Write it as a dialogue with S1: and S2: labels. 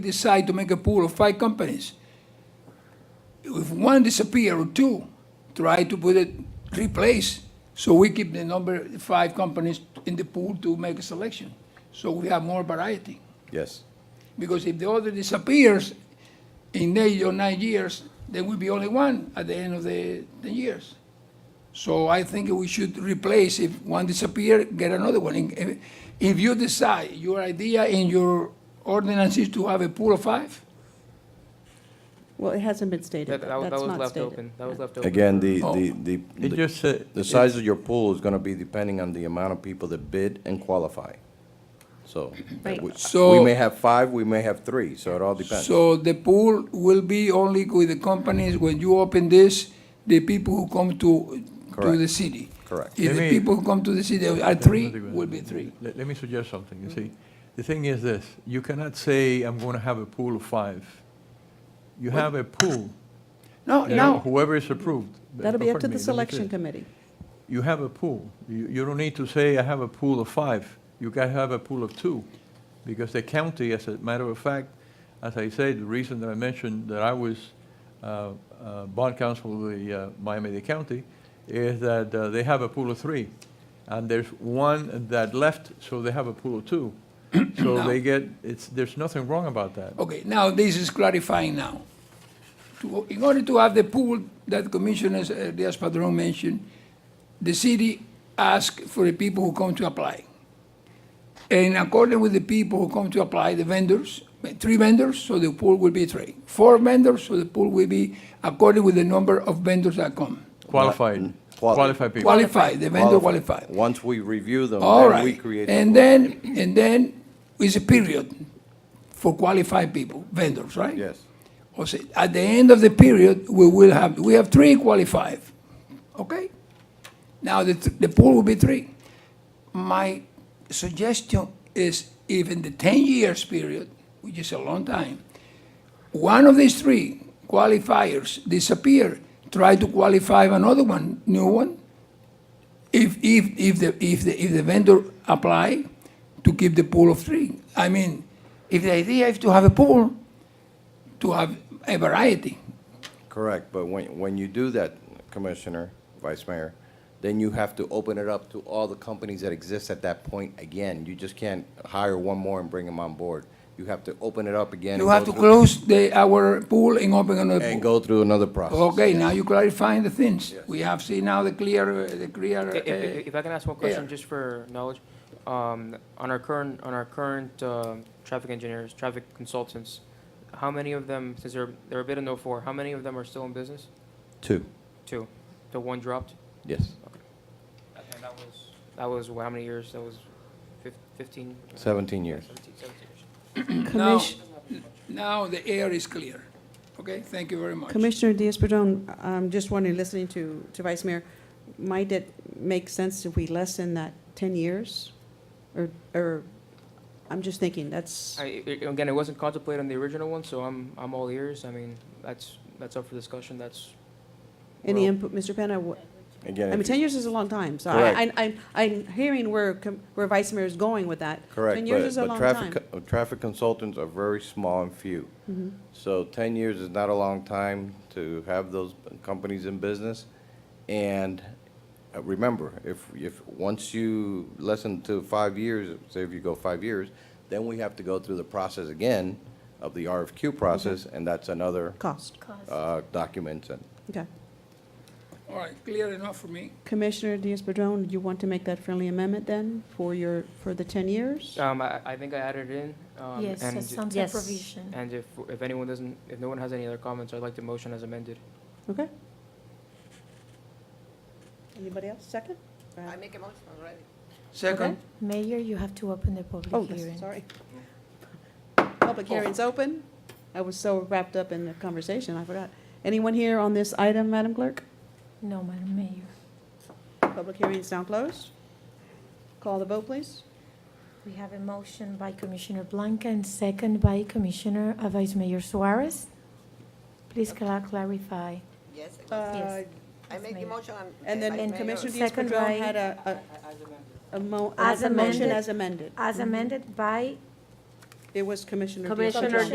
S1: decide to make a pool of five companies. If one disappear or two, try to put it, replace, so we keep the number, five companies in the pool to make a selection. So we have more variety,
S2: Yes.
S1: because if the other disappears in eight or nine years, there will be only one at the end of the, the years. So I think we should replace, if one disappear, get another one. If- If you decide, your idea in your ordinance is to have a pool of five,
S3: Well, it hasn't been stated.
S4: That, that,
S3: though.
S4: was-
S3: That's
S4: that was
S3: not
S4: left
S3: stated.
S4: open, that was left open.
S2: Again, the,
S1: Oh.
S2: the, the,
S5: It
S2: the-
S5: just said.
S2: the size of your pool is gonna be depending on the amount of people that bid and qualify. So,
S3: Right.
S2: we- we
S1: So-
S2: may have five, we may have three, so it all depends.
S1: So the pool will be only with the companies, when you open this, the people who come to, to
S2: Correct.
S1: the city.
S2: Correct.
S1: If the
S5: Let me-
S1: people who come to the city are three, will be three.
S5: Let, let me suggest something, you see. The thing is this, you cannot say, I'm going to have a pool of five. You have a pool,
S1: No,
S5: you know,
S1: no,
S5: whoever is approved.
S3: That'll be up to
S5: Pardon me, let me
S3: the
S5: say
S3: selection
S5: it.
S3: committee.
S5: You have a pool. You, you don't need to say, I have a pool of five. You can have a pool of two. Because the county, as a matter of fact, as I said, the reason that I mentioned that I was uh, uh, bond counsel of the uh, Miami-Dade County is that uh, they have a pool of three. And there's one that left, so they have a pool of two. So they get, it's, there's nothing wrong about that.
S1: okay, now this is clarifying now. To- In order to have the pool that Commissioner uh, Diaz-Padrón mentioned, the city asks for the people who come to apply. And according with the people who come to apply, the vendors, three vendors, so the pool will be three. Four vendors, so the pool will be according with the number of vendors that come.
S5: Qualified,
S2: Quali-
S5: qualified people.
S1: Qualified, the vendor qualified.
S2: Once we review them,
S1: All
S2: then we
S1: right.
S2: create. the
S1: And
S2: pool.
S1: then, and then is a period for qualified people, vendors, right?
S2: Yes,
S1: Or say, at the end of the period, we will have, we have three qualified, okay? Now, the, th- the pool will be three. My suggestion is even the ten years period, which is a long time, one of these three qualifiers disappear, try to qualify another one, new one. If, if, if the, if the, if the vendor apply to keep the pool of three. I mean, if the idea is to have a pool, to have a variety.
S2: correct, but when, when you do that, Commissioner, Vice Mayor, then you have to open it up to all the companies that exist at that point again. You just can't hire one more and bring them on board. You have to open it up again.
S1: You
S2: and
S1: have to
S2: go through-
S1: close the, our pool and open another
S2: And
S1: pool.
S2: go through another process.
S1: Okay, now you clarifying the things. We have seen now the clear, uh, the
S4: I- If, if-
S1: clear,
S4: if I can ask one question,
S1: yeah.
S4: just for knowledge, um, on our current, on our current, um, traffic engineers, traffic consultants, how many of them, since they're, they're a bit of no four, how many of them are still in business?
S2: Two,
S4: Two. The one dropped?
S2: yes,
S4: And that was? That was, wh- how many years? That was fif- fifteen?
S2: seventeen years.
S4: Seventeen, seventeen years.
S1: uh, now,
S3: Commission-
S1: now the air is clear. Okay, thank you very much.
S3: Commissioner Diaz-Padrón, I'm just wondering, listening to, to Vice Mayor, might it make sense if we lessen that 10 years? Or, or, I'm just thinking, that's,
S4: I, i- again, it wasn't contemplated on the original one, so I'm, I'm all ears. I mean, that's, that's up for discussion. That's,
S3: any
S4: well-
S3: input, Mr. Penna? wha-
S2: Again, if
S3: I mean,
S2: you-
S3: 10 years is a long time, so
S2: Correct.
S3: I, I, I'm- I'm hearing where, com- where Vice Mayor is going with that.
S2: Correct,
S3: 10 years
S2: but,
S3: is a
S2: but
S3: long
S2: traffic,
S3: time. Mm-hmm.
S2: co- uh, traffic consultants are very small and few. So ten years is not a long time to have those companies in business. And uh, remember, if, if, once you lessen to five years, say if you go five years, then we have to go through the process again of the RFQ process, and that's another,
S3: Mm-hmm. Cost,
S2: uh, document and
S3: okay.
S1: All right, clear enough for me.
S3: Commissioner Diaz-Padrón, you want to make that friendly amendment then for your, for the 10 years?
S4: um, I, I think I added it in. um,
S6: Yes,
S4: and-
S6: as sunset
S7: Yes.
S6: provision.
S4: And if, if anyone doesn't, if no one has any other comments, I'd like the motion as amended.
S3: Okay. Anybody else, second? Uh,
S8: I make a motion already.
S1: Second,
S6: Mayor, you have to open the
S3: Oh,
S6: public hearing. Oh.
S3: sorry. Public hearing's open. I was so wrapped up in the conversation, I forgot. Anyone here on this item, Madam Clerk?
S6: No, Madam Mayor.
S3: Public hearing's now closed. Call the vote, please.
S6: We have a motion by Commissioner Blanca and second by Commissioner, uh, Vice Mayor Suarez. Please cla- clarify.
S8: Yes. I
S3: Uh,
S8: will.
S6: Yes.
S8: I make the
S6: Mayor.
S8: motion. I'm-
S3: And then
S8: Vice
S3: and
S8: Mayor.
S3: Commissioner
S6: Second
S3: Diaz-Padrón
S6: by-
S3: had a, a, a mo,
S6: As
S3: a motion
S6: amended.
S3: as amended. Mm-hmm.
S6: As amended by
S3: It was Commissioner
S7: Commissioner
S3: Diaz-Padrón.